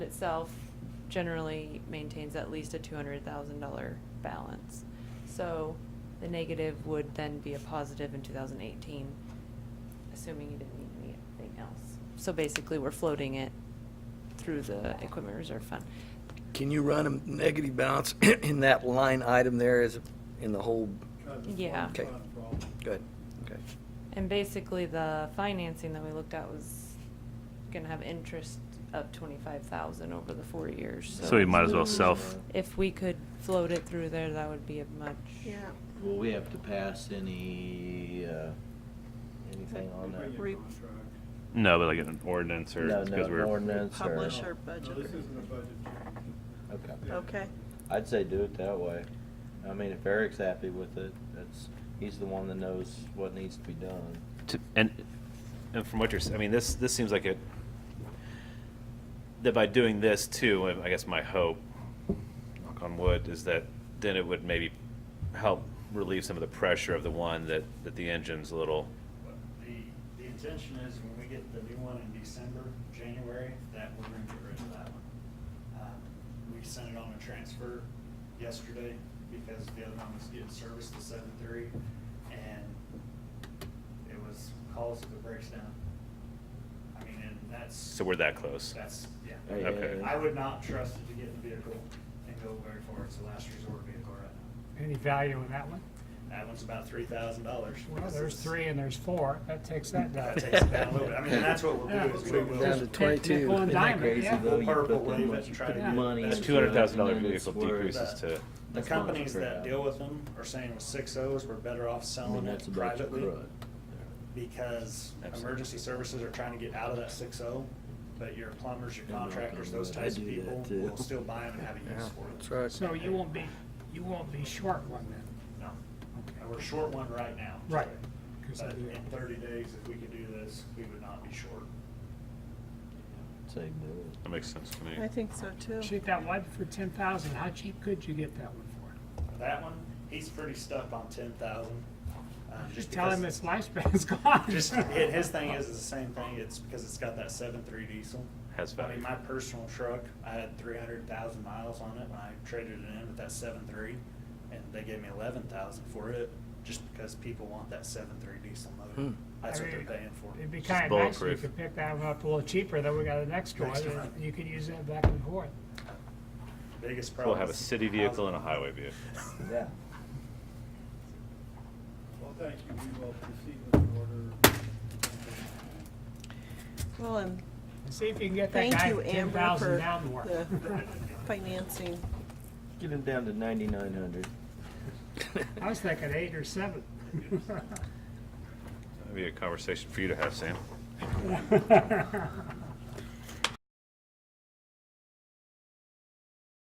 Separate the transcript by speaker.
Speaker 1: itself generally maintains at least a two hundred thousand dollar balance. So the negative would then be a positive in two thousand eighteen, assuming you didn't need anything else. So basically, we're floating it through the equipment reserve fund.
Speaker 2: Can you run a negative balance in that line item there as, in the whole,
Speaker 1: Yeah.
Speaker 2: Okay. good, okay.
Speaker 1: And basically, the financing that we looked at was gonna have interest of twenty-five thousand over the four years, so.
Speaker 3: So we might as well self.
Speaker 1: If we could float it through there, that would be a much.
Speaker 4: Yeah.
Speaker 5: Will we have to pass any, uh, anything on that?
Speaker 4: Re-
Speaker 3: No, but like an ordinance or
Speaker 5: No,
Speaker 3: because
Speaker 5: no,
Speaker 3: we're
Speaker 5: an ordinance or?
Speaker 4: Publish our budget.
Speaker 6: No, this isn't a budget.
Speaker 5: Okay.
Speaker 6: Yeah.
Speaker 4: Okay.
Speaker 5: I'd say do it that way. I mean, if Eric's happy with it, that's, he's the one that knows what needs to be done.
Speaker 3: to, and and from what you're, s- I mean, this this seems like it. That by doing this too, I guess my hope, knock on wood, is that then it would maybe help relieve some of the pressure of the one that that the engine's a little.
Speaker 7: But The, the intention is when we get the new one in December, January, that we're gonna get rid of that one. Um, We sent it on a transfer yesterday because the other one was getting serviced to seven three and it was calls if it breaks down. I mean, and that's.
Speaker 3: So we're that close.
Speaker 7: That's, Oh, yeah.
Speaker 5: Hey,
Speaker 3: Okay.
Speaker 7: I would not trust it to get in the vehicle and go very far. It's a last resort vehicle right now.
Speaker 8: Any value in that one?
Speaker 7: That one's about three thousand dollars.
Speaker 8: Well, there's three and there's four, that takes that down.
Speaker 7: That takes it down a little bit. I mean, and that's what we'll
Speaker 8: Yeah.
Speaker 7: do is we will.
Speaker 2: Down to
Speaker 8: Just pick-
Speaker 2: 22.
Speaker 8: pick one
Speaker 2: Isn't
Speaker 5: Isn't that
Speaker 8: diamond,
Speaker 5: crazy,
Speaker 8: yeah.
Speaker 5: though? You put
Speaker 7: Purple
Speaker 5: the
Speaker 7: wave
Speaker 5: mo-
Speaker 7: that's
Speaker 5: you
Speaker 7: trying
Speaker 5: put
Speaker 7: to
Speaker 5: the
Speaker 8: do
Speaker 5: money
Speaker 8: that.
Speaker 3: It's
Speaker 5: into
Speaker 3: two hundred thousand dollar
Speaker 5: it, and then
Speaker 3: vehicle
Speaker 5: it's worth-
Speaker 3: decreases to.
Speaker 7: The
Speaker 5: That's not
Speaker 7: companies that
Speaker 5: crap.
Speaker 7: deal with them are saying with six O's, we're better off
Speaker 5: I
Speaker 7: selling
Speaker 5: mean, that's a
Speaker 7: it
Speaker 5: bunch of
Speaker 7: privately
Speaker 5: crud.
Speaker 7: because
Speaker 3: Absolutely.
Speaker 7: emergency services are trying to get out of that six O. But your plumbers, your
Speaker 5: I'm not
Speaker 7: contractors,
Speaker 5: gonna
Speaker 7: those
Speaker 5: let
Speaker 7: types
Speaker 5: you
Speaker 7: of
Speaker 5: do
Speaker 7: people
Speaker 5: that, too.
Speaker 7: will still buy them and have a use for them.
Speaker 8: So you won't be, you won't be short one then?
Speaker 7: No,
Speaker 8: Okay.
Speaker 7: And we're short one right now.
Speaker 8: Right.
Speaker 7: But in thirty days, if we could do this, we would not be short.
Speaker 5: Say do it.
Speaker 3: That makes sense to me.
Speaker 4: I think so too.
Speaker 8: Shoot that one for ten thousand, how cheap could you get that one for?
Speaker 7: That one, he's pretty stuck on ten thousand. um,
Speaker 8: Just tell him its lifespan's gone.
Speaker 7: Uh, Just, and his thing is, is the same thing, it's because it's got that seven three diesel.
Speaker 3: Has
Speaker 7: I
Speaker 3: value.
Speaker 7: mean, my personal truck, I had three hundred thousand miles on it, when I traded it in with that seven three, and they gave me eleven thousand for it, just because people want that seven three diesel motor.
Speaker 2: Hmm.
Speaker 7: That's
Speaker 8: I
Speaker 7: what they're
Speaker 8: mean,
Speaker 7: paying for.
Speaker 8: It'd be
Speaker 3: Just
Speaker 8: kinda nice if you
Speaker 3: bulletproof.
Speaker 8: could pick that one up a little cheaper, then we got the next one,
Speaker 7: Next
Speaker 8: and
Speaker 7: one.
Speaker 8: you could use that back and forth.
Speaker 7: Biggest problem.
Speaker 3: We'll have a
Speaker 7: is
Speaker 3: city vehicle and a
Speaker 7: housing.
Speaker 3: highway vehicle.
Speaker 5: Yeah.
Speaker 6: Well, thank you, we will proceed with the order.
Speaker 4: Well, and
Speaker 8: See if you can get that
Speaker 4: thank
Speaker 8: guy
Speaker 4: you,
Speaker 8: ten
Speaker 4: Amber,
Speaker 8: thousand
Speaker 4: for
Speaker 8: down more.
Speaker 4: the financing.
Speaker 5: Get him down to ninety-nine hundred.
Speaker 8: I was thinking eight or seven.
Speaker 3: That'd be a conversation for you to have, Sam.